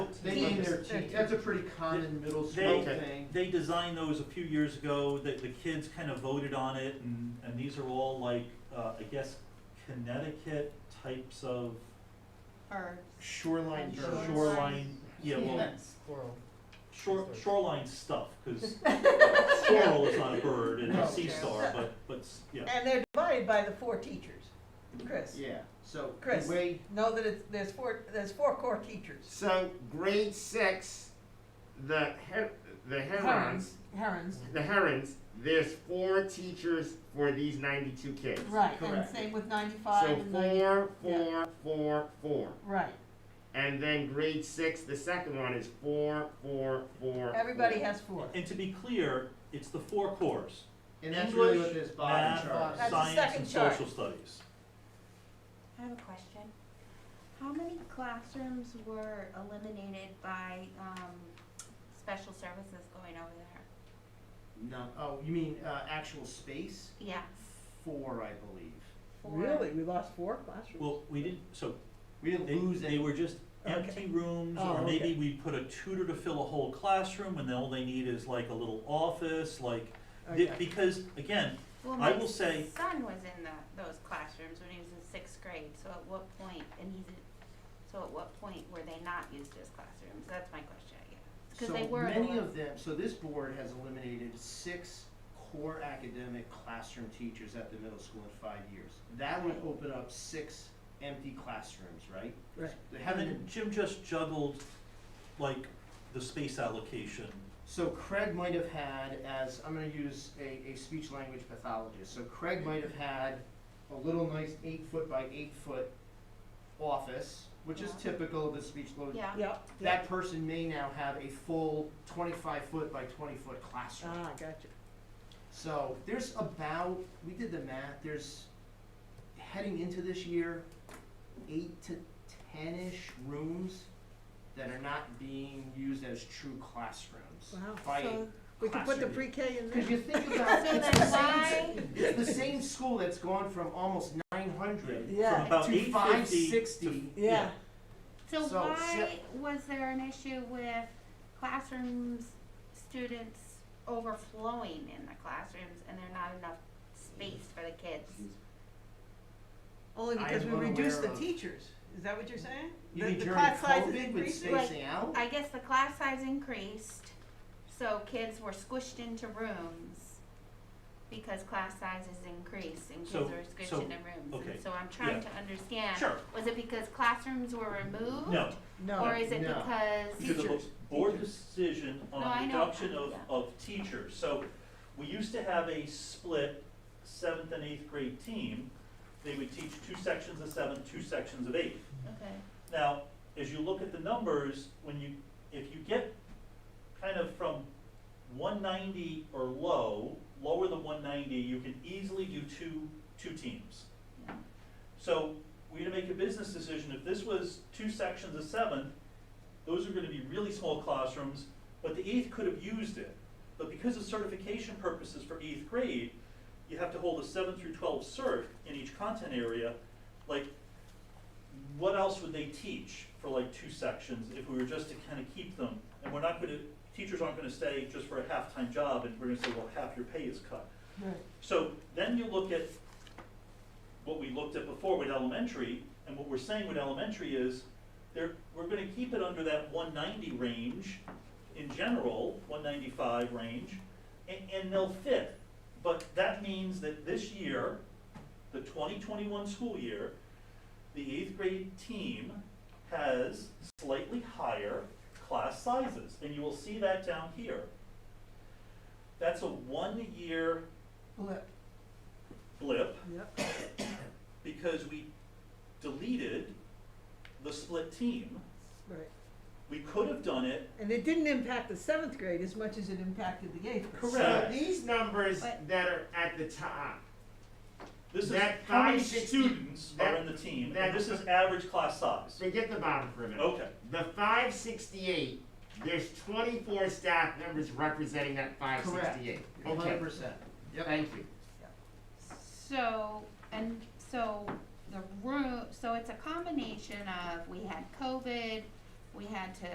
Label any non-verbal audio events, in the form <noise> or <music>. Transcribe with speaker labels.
Speaker 1: Making their
Speaker 2: teeth.
Speaker 1: teeth, that's a pretty common middle school
Speaker 3: They-
Speaker 1: thing.
Speaker 3: They designed those a few years ago, the, the kids kind of voted on it, and, and these are all like, uh, I guess Connecticut types of
Speaker 2: Birds.
Speaker 1: Shoreline
Speaker 2: And
Speaker 1: birds.
Speaker 2: shore-
Speaker 3: shoreline, yeah, well,
Speaker 4: Squirrel.
Speaker 3: shore, shoreline stuff,
Speaker 2: <laughs>
Speaker 3: cause squirrel is not a bird, and
Speaker 2: Oh,
Speaker 1: No.
Speaker 3: a sea star, but, but, s- yeah.
Speaker 2: And they're divided by the four teachers, Chris.
Speaker 5: Yeah,
Speaker 1: So, the
Speaker 2: Chris.
Speaker 1: way,
Speaker 2: Know that it's, there's four, there's four core teachers.
Speaker 5: so grade six, the her- the herons,
Speaker 2: Herons,
Speaker 5: the herons, there's four teachers for these ninety-two kids.
Speaker 2: right, and
Speaker 1: Correct.
Speaker 2: same with ninety-five
Speaker 5: So
Speaker 2: and ninety,
Speaker 5: four,
Speaker 2: yeah.
Speaker 5: four, four, four.
Speaker 2: right.
Speaker 5: And then grade six, the second one is four, four, four.
Speaker 2: Everybody
Speaker 5: four.
Speaker 2: has four.
Speaker 3: And to be clear, it's the four cores,
Speaker 1: and that's really what
Speaker 3: English,
Speaker 1: this bottom
Speaker 3: math, uh,
Speaker 1: chart.
Speaker 2: That's the
Speaker 3: science and
Speaker 2: second chart.
Speaker 3: social studies.
Speaker 6: I have a question. How many classrooms were eliminated by, um, special services going over there?
Speaker 1: No, oh, you mean, uh, actual space?
Speaker 6: Yes.
Speaker 1: Four, I believe.
Speaker 6: for-
Speaker 2: we lost four classrooms?
Speaker 3: Well, we didn't, so
Speaker 1: We
Speaker 3: They,
Speaker 1: didn't lose
Speaker 3: they
Speaker 1: any,
Speaker 3: were just empty rooms, or
Speaker 2: Oh,
Speaker 3: maybe
Speaker 2: okay.
Speaker 3: we put a tutor to fill a whole classroom, and then all they need is like a little office, like, thi-
Speaker 2: Okay.
Speaker 3: because, again,
Speaker 6: Well,
Speaker 3: I
Speaker 6: my
Speaker 3: will say-
Speaker 6: Son was in the, those classrooms when he was in sixth grade, so at what point, and he's, a- so at what point were they not used as classrooms? That's my question, I guess. Cause
Speaker 1: so
Speaker 6: they were. the
Speaker 1: many
Speaker 6: ones-
Speaker 1: of them, so this board has eliminated six core academic classroom teachers at the middle school in five years. That would open up six empty classrooms, right?
Speaker 2: Right.
Speaker 1: They
Speaker 3: and
Speaker 1: haven't,
Speaker 2: Mm-hmm.
Speaker 3: then Jim just juggled, like, the space allocation.
Speaker 1: So Craig might have had, as, I'm gonna use a, a speech language pathologist, so Craig might have had a little nice eight foot by eight foot office, which is
Speaker 6: Yeah.
Speaker 1: typical of the speech load.
Speaker 6: Yeah.
Speaker 2: Yeah.
Speaker 1: That person may now have a full twenty-five foot by twenty foot
Speaker 6: Uh.
Speaker 1: classroom.
Speaker 2: Ah, gotcha.
Speaker 1: So there's about, we did the math, there's, heading into this year, eight to ten-ish rooms that are not being used as true classrooms.
Speaker 2: Wow.
Speaker 1: By a
Speaker 2: we could put the
Speaker 1: classroom.
Speaker 2: pre-K in
Speaker 1: Because you think about
Speaker 6: <laughs> So
Speaker 1: it's the same,
Speaker 6: then why,
Speaker 1: it's the same school that's gone from almost nine hundred
Speaker 3: From
Speaker 2: Yeah.
Speaker 3: about
Speaker 1: To
Speaker 3: eight fifty
Speaker 1: 560.
Speaker 3: to,
Speaker 2: Yeah,
Speaker 6: so
Speaker 1: So,
Speaker 6: why
Speaker 1: se-
Speaker 6: was there an issue with classrooms, students overflowing in the classrooms and there not enough space for the kids?
Speaker 2: only
Speaker 1: I
Speaker 2: because
Speaker 1: am
Speaker 2: we reduced the
Speaker 1: unaware of-
Speaker 2: teachers, is that what you're saying?
Speaker 1: You
Speaker 2: The-
Speaker 1: mean
Speaker 2: the
Speaker 1: during
Speaker 2: class sizes
Speaker 1: COVID with
Speaker 2: increasing?
Speaker 1: spacing out?
Speaker 6: I guess the class size increased, so kids were squished into rooms because class sizes increased and kids
Speaker 3: So-
Speaker 6: were
Speaker 3: so,
Speaker 6: squished into rooms.
Speaker 3: okay,
Speaker 6: And so I'm trying to understand.
Speaker 3: Sure.
Speaker 6: Was it because classrooms were removed?
Speaker 3: no,
Speaker 2: No,
Speaker 6: Or is it
Speaker 1: No.
Speaker 3: because
Speaker 6: because,
Speaker 3: of
Speaker 1: Teachers.
Speaker 3: a board decision
Speaker 6: No, I
Speaker 3: on
Speaker 6: know.
Speaker 3: reduction of,
Speaker 6: Yeah.
Speaker 3: of teachers. So we used to have a split seventh and eighth grade team. They would teach two sections of seventh, two sections of eighth.
Speaker 6: okay,
Speaker 3: Now, as you look at the numbers, when you, if you get kind of from one ninety or low, lower than one ninety, you can easily do two, two teams.
Speaker 6: Yeah.
Speaker 3: So we're gonna make a business decision, if this was two sections of seven, those are gonna be really small classrooms, but the eighth could have used it. But because of certification purposes for eighth grade, you have to hold a seven through twelve cert in each content area. Like, what else would they teach for like two sections if we were just to kind of keep them? And we're not gonna, teachers aren't gonna stay just for a half-time job and we're gonna say, well, half your pay is cut.
Speaker 2: Right.
Speaker 3: So then you look at what we looked at before with elementary, and what we're saying with elementary is, there, we're gonna keep it under that one ninety range in general, one ninety-five range, and, and they'll fit. But that means that this year, the twenty twenty-one school year, the eighth grade team has slightly higher class sizes, and you will see that down here. That's a one-year
Speaker 2: Blip.
Speaker 3: blip
Speaker 2: Yep.
Speaker 3: because we deleted the split team.
Speaker 2: right.
Speaker 3: We could have done it,
Speaker 2: And it didn't impact the seventh grade as much as it impacted the eighth grade.
Speaker 5: So
Speaker 3: correct.
Speaker 5: these numbers
Speaker 6: But-
Speaker 5: that are at the top,
Speaker 3: This is
Speaker 5: That
Speaker 3: how many
Speaker 5: five six-
Speaker 3: students are
Speaker 5: that-
Speaker 3: in the team,
Speaker 5: that-
Speaker 3: and this is average class size.
Speaker 5: forget the bottom for a minute.
Speaker 3: Okay,
Speaker 5: The five sixty-eight, there's twenty-four staff members representing that five sixty-eight.
Speaker 1: Hundred
Speaker 5: Okay,
Speaker 1: percent. Yep.
Speaker 5: thank you.
Speaker 6: so, and so the room, so it's a combination of, we had COVID, we had to